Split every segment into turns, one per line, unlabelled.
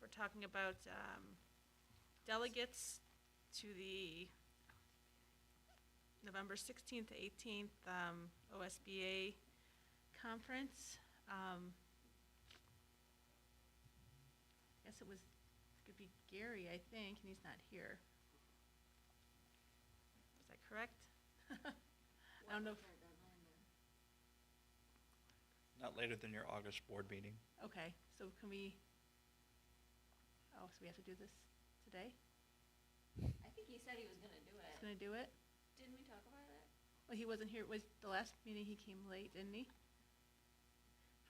we're talking about um, delegates to the November 16th to 18th um, OSBA conference. Um, Guess it was, it could be Gary, I think, and he's not here. Is that correct? I don't know, if-
Not later than your August board meeting.
okay, so can we, oh, so we have to do this today?
I think he said he was gonna do
He's
it.
gonna do it?
Didn't we talk about it?
Well, he wasn't here, was the last meeting he came late, didn't he?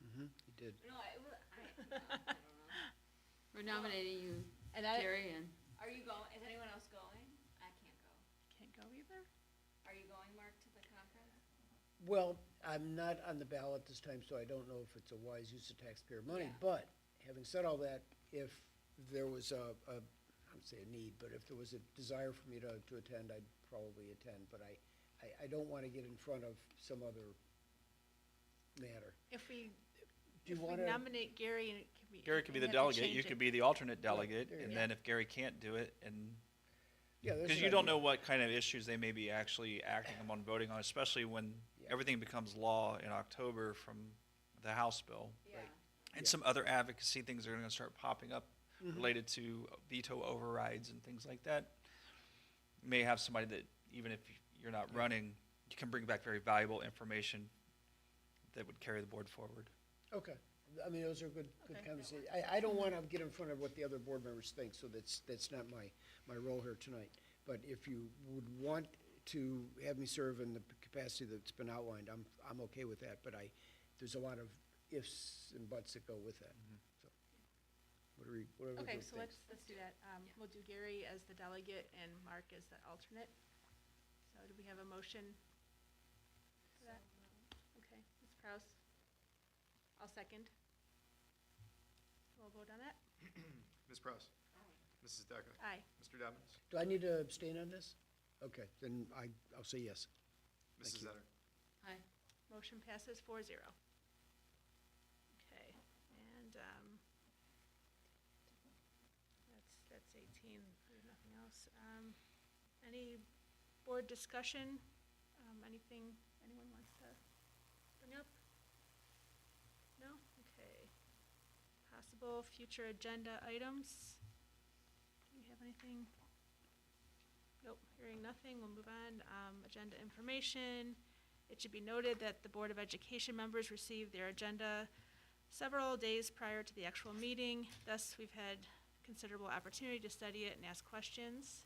Mm-hmm, he did.
No, I, well, I, no, I don't know.
We're nominating you,
And I
Gary, and
Are you going, is anyone else going? I can't go.
can't go either.
Are you going, Mark, to the conference?
Well, I'm not on the ballot this time, so I don't know if it's a wise use of taxpayer money,
Yeah.
but having said all that, if there was a, a, I would say a need, but if there was a desire for me to, to attend, I'd probably attend, but I, I, I don't wanna get in front of some other matter.
If we,
Do
if
you
we
wanna,
nominate Gary and it can be.
Gary could be
we
the
have to
delegate, you
change it.
could be the alternate delegate,
there you
and
go.
then if Gary can't do it, and,
yeah, that's
because
an
you don't know
idea.
what kind of issues they may be actually acting on, voting on, especially when
Yeah.
everything becomes law in October from the House bill.
Yeah.
And
Yeah.
some other advocacy things are gonna start popping up
Mhm.
related to veto overrides and things like that. You May have somebody that, even if you're not running, you can bring back very valuable information that would carry the board forward.
Okay, I mean, those are good, good
Okay.
conversations. I, I don't wanna get in front of what the other board members think, so that's, that's not my, my role here tonight. But if you would want to have me serve in the capacity that's been outlined, I'm, I'm okay with that, but I, there's a lot of ifs and buts that go with that, so. Whatever, you- whatever the
Okay,
group
so
thinks.
let's, let's do that. Um, we'll do Gary as the delegate and Mark as the alternate. So do we have a motion? for that? Okay, Ms. Kraus? I'll second. We'll vote on that.
Ms. Prowse. Mrs. Decker.
Aye.
Mr. Dobbins.
Do I need to abstain on this? Okay, then I, I'll say yes. Thank
Mrs.
you.
Zetter.
I,
Motion passes four zero. Okay, and, um, that's, that's eighteen, we have nothing else. Um, any board discussion, um, anything anyone wants to bring up? No? Okay. Possible future agenda items? Do you have anything? Nope, hearing nothing, we'll move on. Um, agenda information, it should be noted that the Board of Education members received their agenda several days prior to the actual meeting, thus we've had considerable opportunity to study it and ask questions.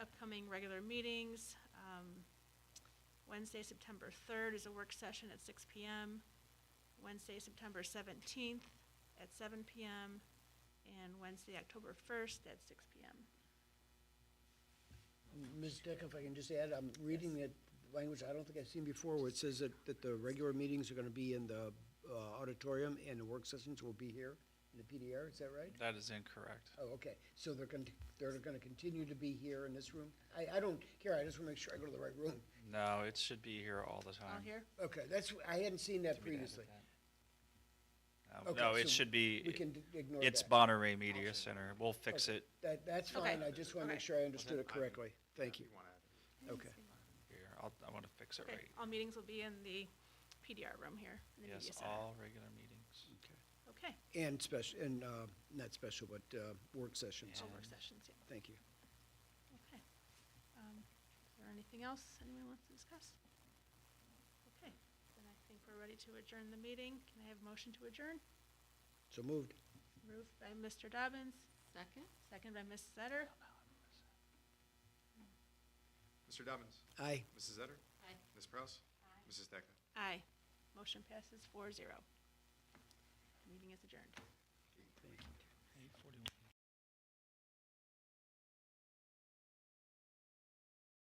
Upcoming regular meetings, um, Wednesday, September third is a work session at six P M. Wednesday, September seventeenth at seven P M. And Wednesday, October first at six P M.
Ms. Deck, if I can just add, I'm reading that language I don't think I've seen before, where it says that, that the regular meetings are gonna be in the uh, auditorium and the work sessions will be here in the PDR, is that right?
That is incorrect.
Oh, okay, so they're gonna, they're gonna continue to be here in this room? I, I don't care, I just wanna make sure I go to the right room.
No, it should be here all the time.
All Oh, here?
Okay, that's, I hadn't seen that previously.
No,
Okay,
Um, No,
so
it should
We
be,
can d- ignore that.
it's Bonneray Media Center. We'll fix
Okay.
it
That, that's
Okay.
fine, I just wanna make
Okay.
sure I understood it
I-
correctly. Thank you,
You want to add it.
okay.
here. I'll, I want to fix it
Okay,
right.
all meetings will be in the PDR room here, in the
Yes,
media center.
all regular meetings.
Okay,
And special, and, uh, not special, but, uh, work sessions,
all work sessions, yeah.
thank you.
Okay. Um, Is there anything else anyone wants to discuss? Okay, then I think we're ready to adjourn the meeting. Can I have a motion to adjourn?
So moved.
Moved by Mr. Dobbins,
second?
second by Ms. Setter.
Mr. Dobbins.
Aye.
Mrs. Zetter.
Aye.
Ms. Prowse. Mrs. Decker.
Aye. Motion passes four zero. Meeting is adjourned.
Thank you.